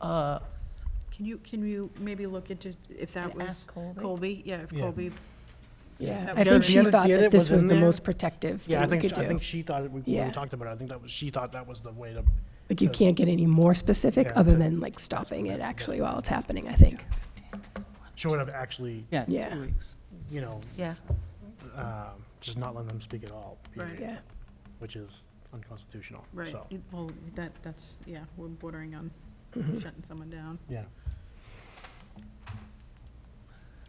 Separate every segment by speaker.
Speaker 1: uh,
Speaker 2: Can you, can you maybe look into if that
Speaker 3: And
Speaker 2: was
Speaker 3: ask Colby?
Speaker 2: Colby? Yeah, if
Speaker 4: Yeah.
Speaker 2: Colby,
Speaker 1: yeah.
Speaker 2: That
Speaker 1: I
Speaker 2: was
Speaker 1: think
Speaker 2: the
Speaker 1: she
Speaker 4: other-
Speaker 1: thought
Speaker 4: the
Speaker 1: that
Speaker 4: edit
Speaker 1: this
Speaker 4: was
Speaker 1: was
Speaker 4: in
Speaker 1: the
Speaker 4: there.
Speaker 1: most protective
Speaker 4: Yeah, I
Speaker 1: that we
Speaker 4: think,
Speaker 1: could
Speaker 4: I
Speaker 1: do.
Speaker 4: think she thought, it- we, when
Speaker 1: Yeah.
Speaker 4: we talked about it, I think that was, she thought that was the way to,
Speaker 1: Like, you
Speaker 4: so-
Speaker 1: can't get any more specific
Speaker 4: Yeah,
Speaker 1: other
Speaker 4: that-
Speaker 1: than like stopping it actually while it's happening, I think.
Speaker 4: she would have actually,
Speaker 5: Yeah, it's
Speaker 1: Yeah.
Speaker 5: two weeks.
Speaker 4: you know,
Speaker 3: Yeah,
Speaker 4: um, just not letting them speak at all, period,
Speaker 1: Yeah.
Speaker 4: which is unconstitutional,
Speaker 2: right,
Speaker 4: so,
Speaker 2: You- well, that, that's, yeah, we're bordering on
Speaker 1: Mm-hmm.
Speaker 2: shutting someone down.
Speaker 4: yeah.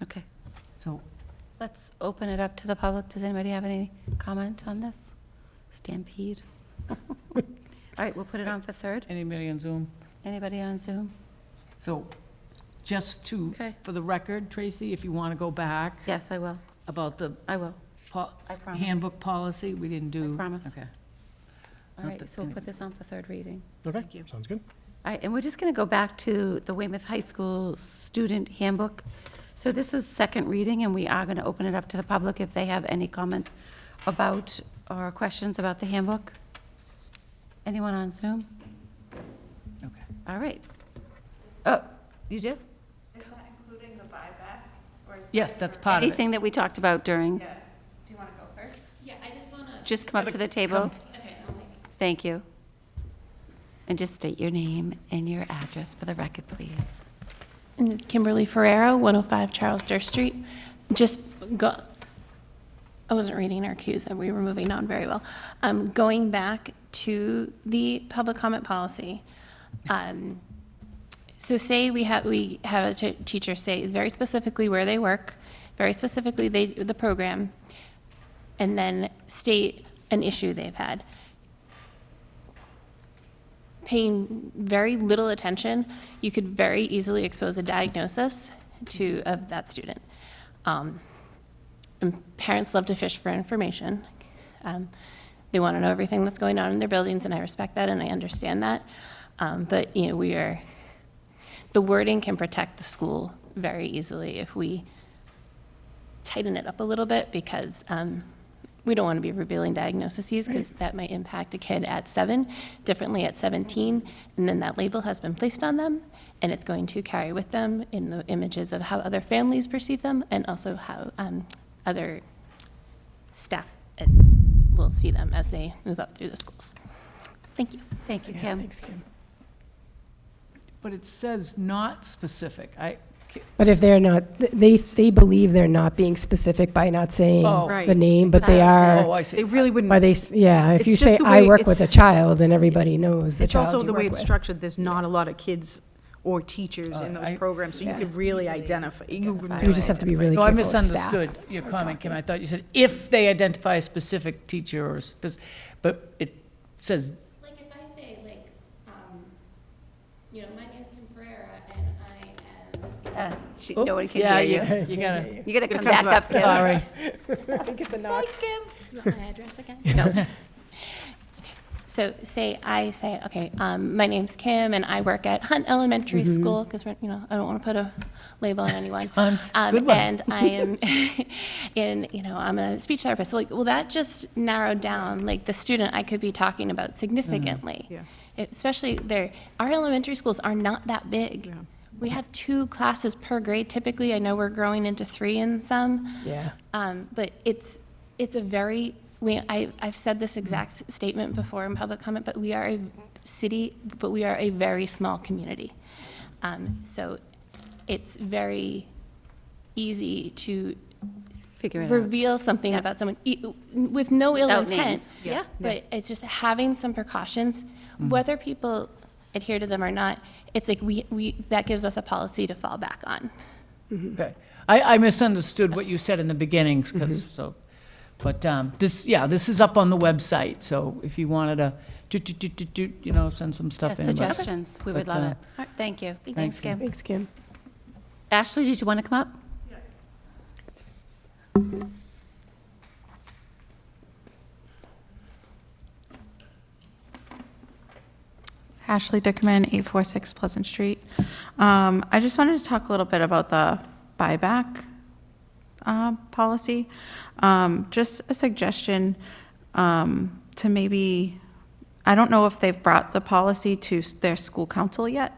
Speaker 3: okay.
Speaker 5: So
Speaker 3: Let's open it up to the public. Does anybody have any comment on this? Stampede? All right, we'll put it on for third.
Speaker 5: anybody on Zoom?
Speaker 3: Anybody on Zoom?
Speaker 5: So just to,
Speaker 3: Okay.
Speaker 5: for the record, Tracy, if you want to go back
Speaker 3: Yes, I will.
Speaker 5: about the
Speaker 3: I will.
Speaker 5: po-
Speaker 3: I promise.
Speaker 5: handbook policy, we didn't do.
Speaker 3: promise.
Speaker 5: Okay.
Speaker 3: All
Speaker 5: Not
Speaker 3: right,
Speaker 5: that
Speaker 3: so we'll put
Speaker 5: anybody-
Speaker 3: this on for third reading.
Speaker 4: Okay,
Speaker 2: Thank you.
Speaker 4: sounds good.
Speaker 3: All right, and we're just going to go back to the Weymouth High School Student Handbook. So this was second reading, and we are going to open it up to the public if they have any comments about or questions about the handbook. Anyone on Zoom?
Speaker 5: Okay.
Speaker 3: All right. Oh, you do?
Speaker 6: Is that including the buyback, or is?
Speaker 5: Yes,
Speaker 6: that
Speaker 5: that's
Speaker 6: for-
Speaker 5: part of it.
Speaker 3: Anything that we talked about during,
Speaker 6: Yeah. Do you want to go first?
Speaker 7: Yeah, I just wanna,
Speaker 3: just come up to the table.
Speaker 7: okay, I'll like
Speaker 3: Thank you. And just state your name and your address for the record, please.
Speaker 7: And Kimberly Ferrero, 105 Charles Durst Street. Just go, I wasn't reading our cues, and we were moving on very well. Um, Going back to the public comment policy, um, so say we have, we have a t- teacher say very specifically where they work, very specifically they, the program, and then state an issue they've had paying very little attention, you could very easily expose a diagnosis to, of that student. Um, and parents love to fish for information. Um, they want to know everything that's going on in their buildings, and I respect that and I understand that. Um, but, you know, we are, the wording can protect the school very easily if we tighten it up a little bit because um, we don't want to be revealing diagnoses because that might impact a kid at seven differently at 17. And then that label has been placed on them and it's going to carry with them in the images of how other families perceive them and also how um, other staff at- will see them as they move up through the schools. Thank you.
Speaker 3: Thank you,
Speaker 1: Yeah,
Speaker 3: Kim.
Speaker 1: thanks, Kim.
Speaker 5: But it says not specific. I,
Speaker 1: But if they're not, th- they, they believe they're not being specific by not saying
Speaker 5: Oh.
Speaker 1: the
Speaker 2: Right.
Speaker 1: name, but they
Speaker 5: oh,
Speaker 1: are,
Speaker 5: I
Speaker 2: They
Speaker 5: see.
Speaker 2: really wouldn't.
Speaker 1: by they, s- yeah, if
Speaker 2: It's
Speaker 1: you
Speaker 2: just
Speaker 1: say,
Speaker 2: the
Speaker 1: I
Speaker 2: way
Speaker 1: work with a
Speaker 2: it's-
Speaker 1: child, then everybody knows the
Speaker 2: It's
Speaker 1: child
Speaker 2: also
Speaker 1: you
Speaker 2: the way
Speaker 1: work
Speaker 2: it's
Speaker 1: with.
Speaker 2: structured, there's not a lot of kids or teachers
Speaker 4: Uh,
Speaker 2: in those
Speaker 5: I-
Speaker 2: programs, so you
Speaker 1: Yeah.
Speaker 2: could really identify, you would
Speaker 1: So we
Speaker 2: really
Speaker 1: just have to be
Speaker 2: identify.
Speaker 1: really
Speaker 5: No, I
Speaker 1: careful of staff.
Speaker 5: misunderstood your comment, Kim. I thought you said if they identify a specific teacher or, spec- but it says
Speaker 7: Like if I say like, um, you know, my name's Kim Ferrera and I am
Speaker 3: Uh, she-
Speaker 5: Oh,
Speaker 3: No one can
Speaker 5: yeah,
Speaker 3: hear you.
Speaker 5: You gotta,
Speaker 3: You
Speaker 2: Gotta
Speaker 3: gotta come
Speaker 2: come
Speaker 3: back
Speaker 2: back.
Speaker 3: up, Kim.
Speaker 5: sorry.
Speaker 3: Thanks, Kim.
Speaker 7: You want my address again?
Speaker 6: So say I say, okay, um, my name's Kim and I work at Hunt Elementary School because we're, you know, I don't want to put a label on anyone.
Speaker 5: Hunt,
Speaker 6: um,
Speaker 5: good one.
Speaker 6: And I am in, you know, I'm a speech therapist. Like, well, that just narrowed down like the student I could be talking about significantly.
Speaker 2: Yeah.
Speaker 6: Especially there, our elementary schools are not that big.
Speaker 2: Yeah.
Speaker 6: We have two classes per grade typically. I know we're growing into three in some.
Speaker 1: Yeah.
Speaker 6: Um, but it's, it's a very, we, I, I've said this exact s- statement before in public comment, but we are a city, but we are a very small community. Um, so it's very easy to
Speaker 3: Figure it out.
Speaker 6: reveal something
Speaker 3: Yeah.
Speaker 6: about someone e- with no ill
Speaker 3: Without
Speaker 6: intent.
Speaker 3: names. Yeah. Mm-hmm.
Speaker 6: But it's just having some precautions, whether people adhere to them or not, it's like we, we, that gives us a policy to fall back on.
Speaker 5: Mm-hmm. Okay. I, I misunderstood what you said in the beginnings, 'cause- so, but um, this, yeah, this is up on the website, so if you wanted to, do, do, do, do, do, you know, send some stuff in. but-
Speaker 3: Suggestions, we would
Speaker 5: But, uh,
Speaker 3: love it. Thank you.
Speaker 5: Thanks, Kim.
Speaker 1: Thanks, Kim.
Speaker 3: Ashley, did you want to come up?
Speaker 8: Ashley Dickerman, 846 Pleasant Street. Um, I just wanted to talk a little bit about the buyback uh, policy. Um, Just a suggestion um, to maybe, I don't know if they've brought the policy to s- their school council yet,